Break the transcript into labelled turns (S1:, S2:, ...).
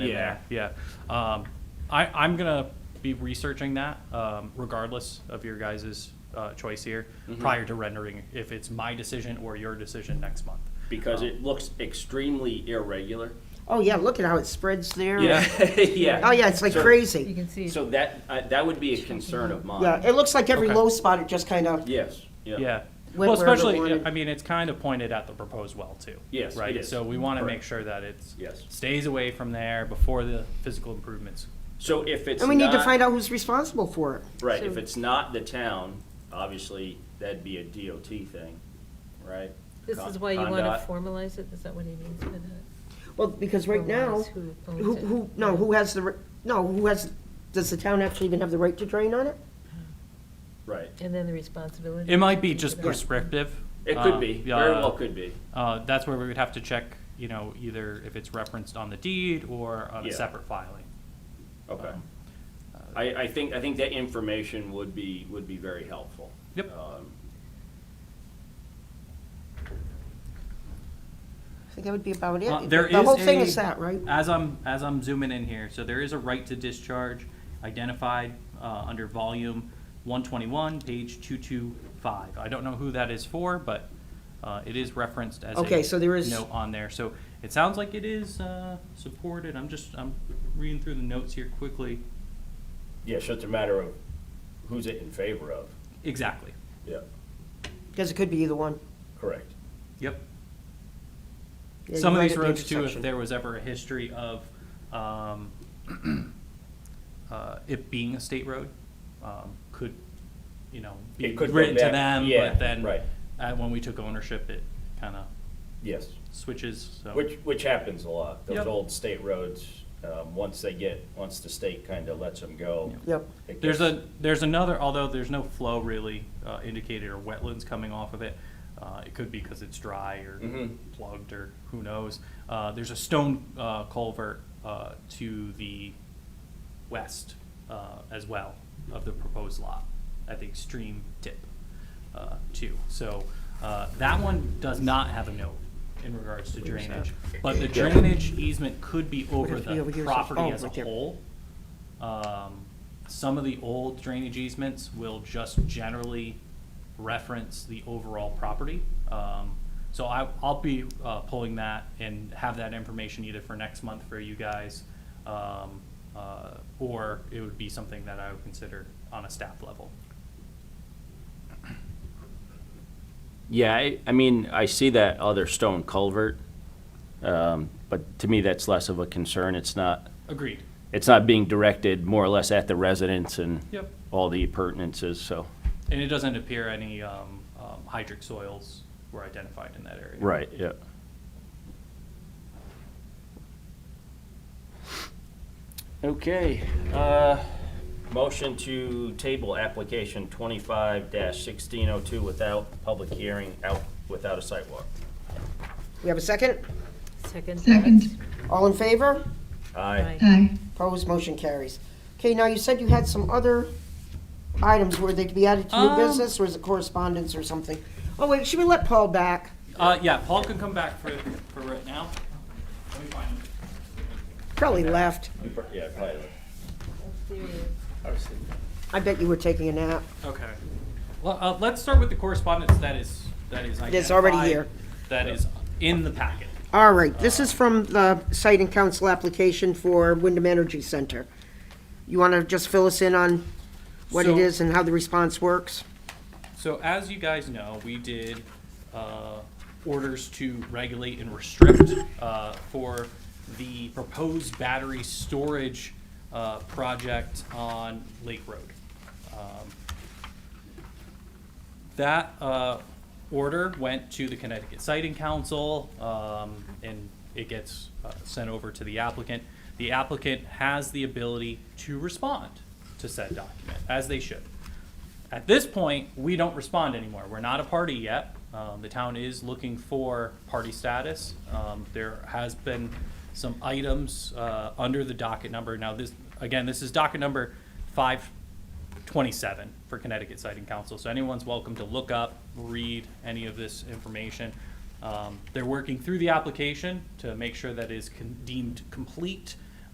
S1: Yeah, yeah. Um, I, I'm gonna be researching that, um, regardless of your guys' uh, choice here,
S2: Mhm.
S1: prior to rendering, if it's my decision or your decision next month. Um,
S2: because it looks extremely irregular.
S3: Oh, yeah, look at how it spreads there.
S2: yeah.
S3: Oh, yeah, it's like
S2: So-
S4: You
S3: crazy.
S4: can see.
S2: So that, I- that would be a concern of mine.
S3: Yeah, it looks like every
S1: Okay.
S3: low spot, it just kind of,
S2: Yes,
S1: Yeah.
S2: yeah.
S3: Where-
S1: Well,
S3: where the
S1: especially,
S3: one-
S1: I mean, it's kind of pointed at the proposed well too.
S2: Yes, it
S1: Right?
S2: is.
S1: So we wanna
S2: Correct.
S1: make sure that it's.
S2: Yes.
S1: Stays away from there before the physical improvements.
S2: So if it's
S3: and we need to
S2: not-
S3: find out who's responsible for it.
S2: Right, if it's not the town, obviously, that'd be a DOT thing, right?
S4: This
S2: Con-
S4: is why you want
S2: Condot.
S4: to formalize it, is that what he means by that?
S3: Well, because right now,
S4: Formalize who owns
S3: who,
S4: it.
S3: who, no, who has the, ri- no, who has, does the town actually even have the right to drain on it?
S2: Right,
S4: And then the responsibility.
S1: It might be just
S4: Yeah.
S1: prescriptive.
S2: it
S1: uh,
S2: could be, very
S1: yeah,
S2: well could be,
S1: Uh, that's where we would have to check, you know, either if it's referenced on the deed or on a
S2: Yeah.
S1: separate filing.
S2: okay.
S1: Um,
S2: I, I think, I think that information would be, would be very helpful.
S1: Yep.
S2: Um,
S3: I think that would be about
S1: Uh,
S3: it.
S1: there
S3: The whole
S1: is
S3: thing
S1: a-
S3: is that, right?
S1: As I'm, as I'm zooming in here, so there is a right to discharge identified uh, under volume 121, page 225. I don't know who that is for, but uh, it is referenced as
S3: Okay,
S1: a
S3: so there is-
S1: note on there. So it sounds like it is uh, supported. I'm just, I'm reading through the notes here quickly.
S2: Yeah, so it's a matter of who's it in favor of.
S1: Exactly.
S2: Yeah,
S3: Because it could be either one.
S2: correct.
S1: Yep.
S3: Yeah,
S1: some of
S3: you're right
S1: these
S3: at the
S1: roads too, if
S3: intersection.
S1: there was ever a history of um, uh, it being a state road, um, could, you know, be
S2: It could go
S1: written to
S2: back-
S1: them,
S2: yeah,
S1: but then
S2: right.
S1: uh, when we took ownership, it kind of
S2: Yes.
S1: switches, so.
S2: Which, which happens a lot, those
S1: Yep.
S2: old state roads, um, once they get, once the state kind of lets them go.
S3: Yep.
S2: it
S1: There's
S2: gets-
S1: a, there's another, although there's no flow really uh, indicated or wetlands coming off of it. uh, It could be because it's dry or
S2: Mhm.
S1: plugged or who knows. Uh, There's a stone uh, culvert uh, to the west uh, as well of the proposed lot at the extreme tip uh, too. So uh, that one does not have a note in regards to drainage. But the drainage easement could be over
S3: if you over
S1: the
S3: here, so-
S1: property
S3: oh,
S1: as a
S3: right there.
S1: whole. Um, Some of the old drainage easements will just generally reference the overall property. Um, So I, I'll be uh, pulling that and have that information either for next month for you guys, um, uh, or it would be something that I would consider on a staff level.
S2: Yeah, I, I mean, I see that other stone culvert, um, but to me, that's less of a concern. It's not,
S1: Agreed.
S2: it's not being directed more or less at the residents and
S1: Yep.
S2: all the appurtenances, so.
S1: And it doesn't appear any um, um, hydric soils were identified in that area.
S2: Right, yeah. Okay, uh, motion to table application twenty-five sixteen oh two without public hearing, out, without a sidewalk.
S3: We have a second?
S4: Second.
S5: Second.
S3: All in favor?
S2: Aye.
S4: Right.
S5: Aye.
S3: Opposed, motion carries. Okay, now you said you had some other items, were they to be added to new
S1: Um,
S3: business, or is it correspondence or something? Oh, wait, should we let Paul back?
S1: Uh, yeah, Paul can come back for, for right now. Let me find him.
S3: Probably left.
S2: Yeah, probably.
S4: There he is.
S3: I bet you were taking a nap.
S1: Okay. Well, uh, let's start with the correspondence that is, that is identified.
S3: That's already here.
S1: That is in the packet.
S3: All right, this is from the site and council application for Wyndham Energy Center. You want to just fill us in on what it
S1: So-
S3: is and how the response works?
S1: So as you guys know, we did uh, orders to regulate and restrict uh, for the proposed battery storage uh, project on Lake Road. Um, That uh, order went to the Connecticut Siting Council, um, and it gets uh, sent over to the applicant. The applicant has the ability to respond to said document, as they should. At this point, we don't respond anymore. We're not a party yet. Um, the town is looking for party status. Um, there has been some items, uh, under the docket number. Now, this, again, this is docket number five twenty-seven for Connecticut Siting Council. So anyone's welcome to look up, read any of this information. Um, they're working through the application to make sure that it is con- deemed complete